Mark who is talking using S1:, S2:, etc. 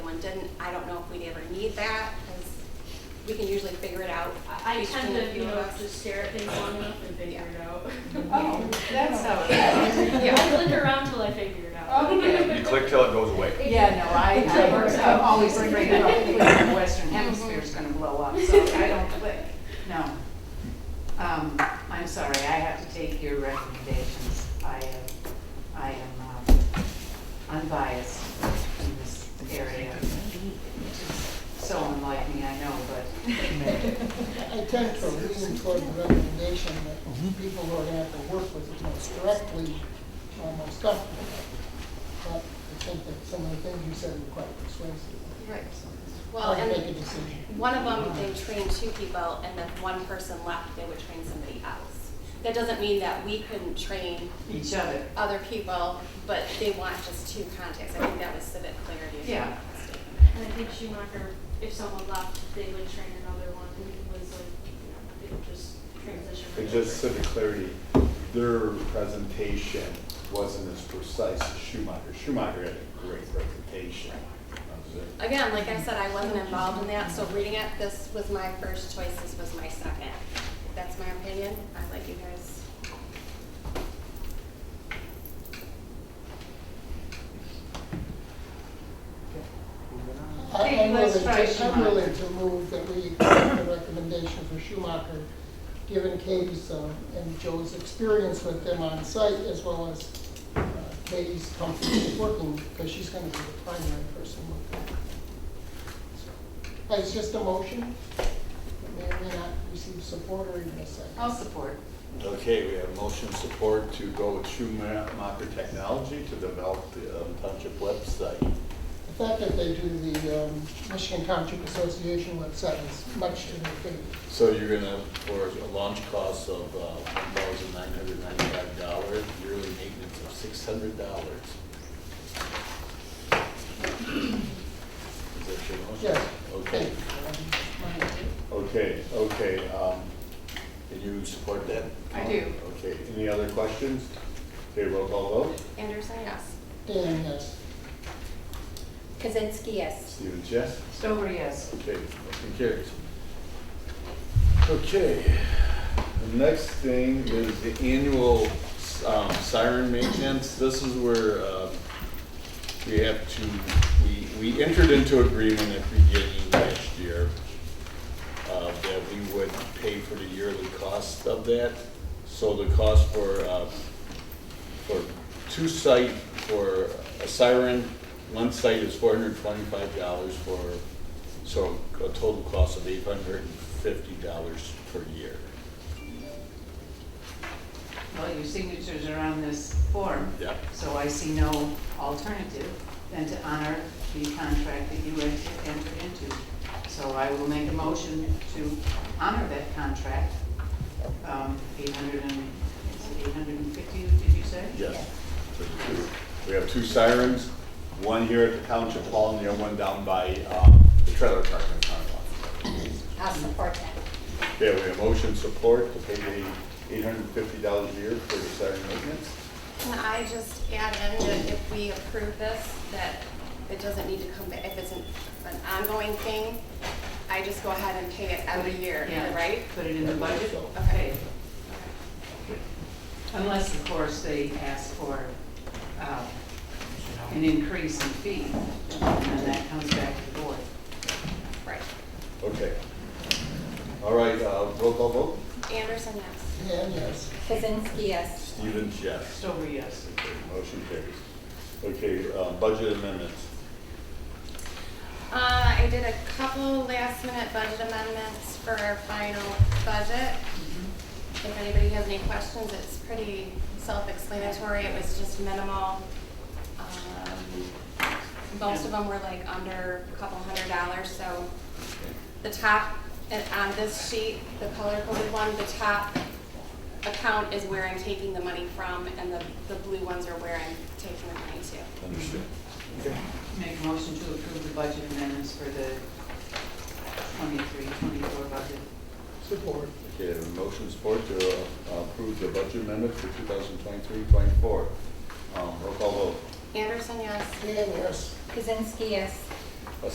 S1: didn't, I don't know if we'd ever need that, because we can usually figure it out.
S2: I I tend
S1: between
S2: to, you know,
S1: us.
S2: just stare at things long enough and figure it out.
S3: Oh, that's how it
S2: I look around till I figure it out.
S3: Okay.
S4: You click till it goes away.
S3: Yeah, no, I, I work, I'm always afraid that the Western Hemisphere is gonna blow up, so I don't click, no. Um, I'm sorry, I have to take your recommendations. I am, I am um, unbiased in this area. So unlike me, I know, but
S5: I tend to lean toward the recommendation that people who are gonna have to work with it most directly are most comfortable. But I think that some of the things you said were quite persuasive.
S1: Right. Well,
S5: Or Make a
S1: and
S5: decision.
S1: one of them, they trained two people, and then one person left, they would train somebody else. That doesn't mean that we couldn't train
S3: each other.
S1: other people, but they want just two contacts. I think that was civic clarity. if I'm not
S3: Yeah.
S1: mistaken.
S2: And I think Schumacher, if someone left, they would train another one, and it was like, you know, they would just transition.
S6: And
S2: over.
S6: just civic clarity, their presentation wasn't as precise as Schumacher. Schumacher had a great presentation.
S1: Again, like I said, I wasn't involved in that, so reading it, this was my first choice, this was my second. That's my opinion. I like you guys.
S5: I-
S3: Hey,
S5: I'm
S3: let's
S5: willing
S3: try
S5: to, I'm
S3: Schumacher.
S5: willing to move that we accept the recommendation for Schumacher, given Katie's uh, and Joe's experience with them on site, as well as uh, Katie's comfort with working, because she's gonna be the primary person with them. So, It's just a motion, it may or may not receive support or even a second.
S3: I'll support.
S6: Okay, we have motion support to go with Schumacher Technology to develop the um, township website.
S5: The fact that they do the um, Michigan Township Association website is much to their favor.
S6: So you're gonna, for a launch cost of uh, one thousand nine hundred ninety-five dollars, yearly maintenance of six hundred dollars. Is that your motion?
S5: Yes.
S6: Okay, okay, okay, um, and you support that?
S3: I do.
S6: Okay, any other questions? Okay, roll call vote,
S1: Anderson, yes.
S5: Dan, yes.
S1: Kazinsky, yes.
S6: Stevens, yes?
S3: Stover, yes.
S6: Okay, motion carries. Okay, the next thing is the annual um, siren maintenance. This is where um, we have to, we, we entered into agreement at the beginning last year uh, that we would pay for the yearly cost of that. So the cost for, uh, for two site, for a siren, one site is four hundred twenty-five dollars for, so a total cost of eight hundred and fifty dollars per year.
S3: Well, your signatures are on this form.
S6: Yep.
S3: So I see no alternative than to honor the contract that you en- entered into. So I will make a motion to honor that contract, um, 800 and, is it 850, did you say?
S6: Yes. So the two- We have two sirens, one here at the township hall and the other one down by uh, the trailer park in front of us.
S1: I'll support that.
S6: Okay, we have motion support to pay the eight hundred and fifty dollars a year for the siren maintenance.
S1: Can I just add in that if we approve this, that it doesn't need to come back, if it's an, an ongoing thing, I just go ahead and pay it every year,
S3: Yeah.
S1: right?
S3: Put it in the budget?
S1: Okay.
S3: Unless, of course, they ask for um, an increase in fee, and then that comes back to the board.
S1: Right.
S6: Okay. All right, uh, roll call vote.
S1: Anderson, yes.
S5: Dan, yes.
S7: Kazinsky, yes.
S6: Stevens, yes.
S3: Stover, yes.
S6: Okay, Motion carries. Okay, uh, budget amendments.
S1: Uh, I did a couple last minute budget amendments for our final budget. If anybody has any questions, it's pretty self-explanatory. It was just minimal. Um, Most of them were like under a couple hundred dollars, so the top, and on this sheet, the color-coded one, the top account is where I'm taking the money from, and the, the blue ones are where I'm taking the money to.
S6: Understood. Okay.
S3: Make a motion to approve the budget amendments for the 23, 24 budget.
S5: Support.
S6: Okay, a motion support to uh, approve the budget amendment for 2023-24. Um, Roll call vote.
S1: Anderson, yes.
S5: Dan, yes.
S7: Kazinsky, yes.